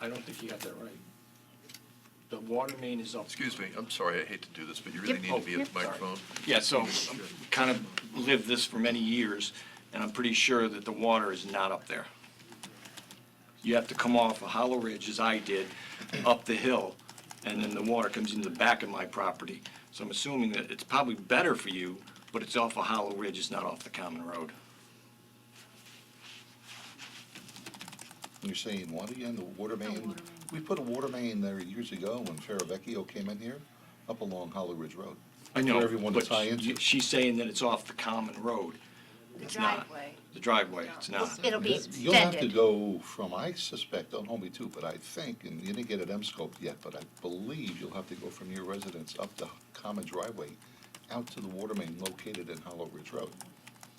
I don't think you got that right. The water main is up. Excuse me, I'm sorry, I hate to do this, but you really Yep. need to be Oh, at the yep. microphone. Yeah, so I'm kind of lived this for many years, and I'm pretty sure that the water is not up there. You have to come off a hollow ridge, as I did, up the hill, and then the water comes into the back of my property. So I'm assuming that it's probably better for you, but it's off a hollow ridge, it's not off the common road. You're saying what again, the water main? water main. We put a water main there years ago when Ferravecchio came in here, up along Hollow Ridge Road. I know, For everyone to but tie into. you- she's saying that it's off the common road. The It's not. driveway. The driveway, it's not. It'll be You'll have to extended. go from, I suspect, don't hold me to, it, but I think, and you didn't get it M-scoped yet, but I believe you'll have to go from your residence up the common driveway out to the water main located in Hollow Ridge Road.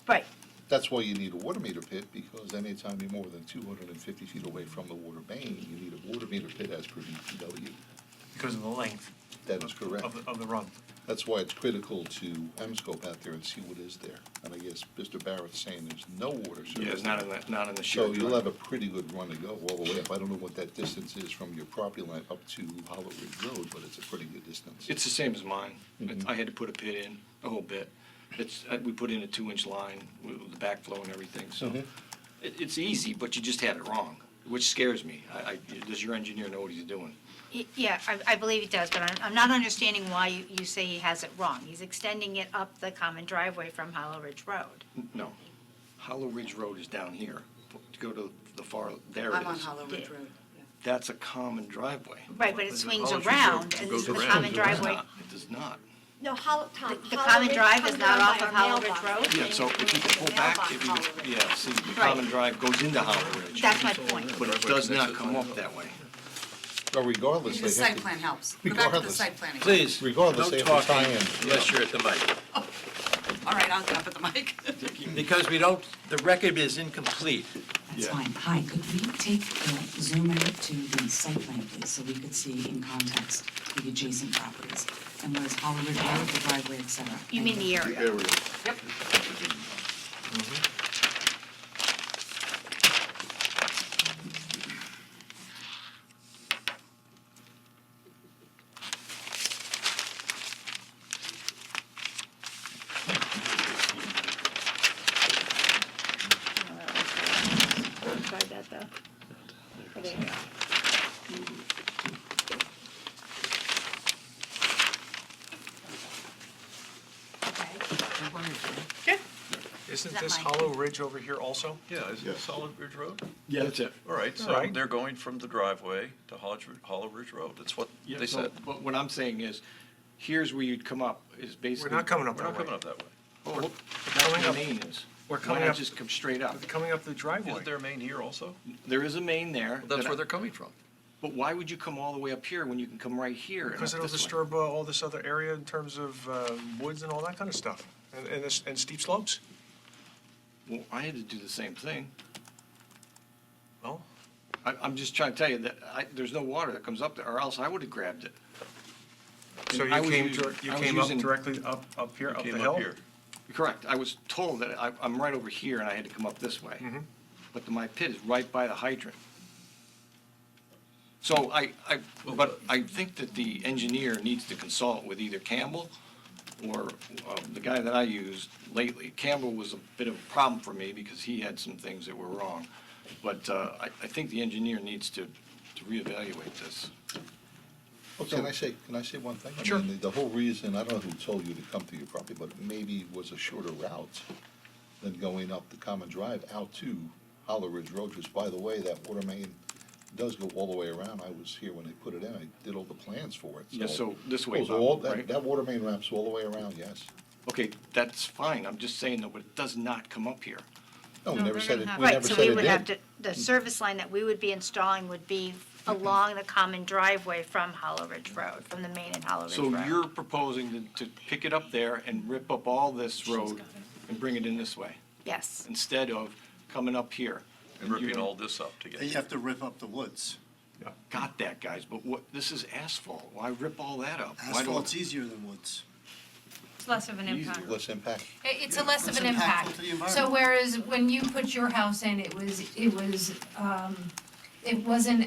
Right, That's why you need a water meter pit, because anytime you're more than two hundred and fifty feet away from the water main, you need a water meter pit as per DPW. because of the length That is correct. of, the- of the run. That's why it's critical to scope out there and see what is there. And I guess Mr. Barrett's saying there's no water service. Yeah, it's not in the, not in the So shared you'll have driveway. a pretty good run to go all the way up. I don't know what that distance is from your property line up to Hollow Ridge Road, but it's a pretty good distance. It's the same as mine. It's- Mm-hmm. I had to put a pit in, a whole bit. It's, uh, we put in a two-inch line with the backflow and everything, so Mm-hmm. Mhm. it, it's easy, but you just had it wrong, which scares me. I, I, does your engineer know what he's doing? Y- yeah, I, I believe it does, but I'm, I'm not understanding why you, you say he has it wrong. He's extending it up the common driveway from Hollow Ridge Road. No. Hollow Ridge Road is down here. Go to the far, there it I'm on is. Hollow Ridge Yeah. Road. yeah. That's a common driveway. Right, but it swings Hollow Ridge Road around and goes the around. common It's It's driveway. not. It does not. No, Hollow, Tom, The- the Hollow common Ridge drive is comes not down off by of our Hollow Ridge Road? mailbox. Yeah, so if you pull back, it would, yeah, see, the common drive goes into Hollow Ridge. That's my point. But it does not come up that way. But regardless, The they have site to. plan helps. Go back to the Regardless. site planning. Please, Regardless, no they have to tie talking in. unless you're at the mic. All right, I'll get up at the mic. Because we don't, the record is incomplete. That's Yeah. fine. Hi, could we take, uh, zoom out to the site plan, please, so we could see in context the adjacent properties? And what is Hollywood Road, the driveway, et cetera? You mean Thank the area? Tried that, though. Okay. Okay. Isn't that this mine? Hollow Ridge over here also? Yeah, is it Solid Ridge Road? Yeah, that's it. All right, so Alright. they're going from the driveway to Hollow, Hollow Ridge Road, that's what Yeah, they so- said. But what I'm saying is, here's where you'd come up, is basically. not coming up We're not that way. coming up that way. Oh, look, That's coming where the up- main is. we're Why coming not up- just come straight up? Coming up the driveway. Isn't there a main here also? There is a main there. Well, That's that I- where they're coming from. But why would you come all the way up here when you can come right here? and Because up it'll this way? disturb uh, all this other area in terms of um, woods and all that kind of stuff, and, and this- and steep slopes. Well, I had to do the same thing. Well, I, I'm just trying to tell you that I, there's no water that comes up there, or else I would have grabbed it. so And I you was came, using- dir- you I was came up using- directly up, up here, up the Came hill? up here. Correct. I was told that I, I'm right over here and I had to come up this way. But my pit is right by the hydrant. So I, I, but I think that the engineer needs to consult with either Campbell or uh, the guy that I used lately. Campbell was a bit of a problem for me because he had some things that were wrong. But uh, I, I think the engineer needs to, to reevaluate this. Well, Can I say, can I say one thing? I Sure. mean, the- The whole reason, I don't know who told you to come to your property, but maybe it was a shorter route than going up the common drive out to Hollow Ridge Road, which, by the way, that water main does go all the way around. I was here when they put it in, I did all the plans for it, so. Yeah, so this way, Oh, so all- Bob, that- right? That water main wraps all the way around, yes. Okay, that's fine. I'm just saying though, but it does not come up here. No, we never said it, we Uh-huh. Right, never so said we it would have did. to, the service line that we would be installing would be along the common driveway from Hollow Ridge Road, from the main and Hollow Ridge So Road. you're proposing to, to pick it up there and rip up all this road and bring it in this way, Yes. instead of coming up here? And ripping all this up together. You have to rip up the woods. Got that, guys, but what, this is asphalt, why rip all that up? Why don't- Asphalt's easier than woods. It's less of an impact. Easier. Less impact. It- It's a less of Less an impactful impact. to the environment. So whereas when you put your house in, it was, it was, um, it wasn't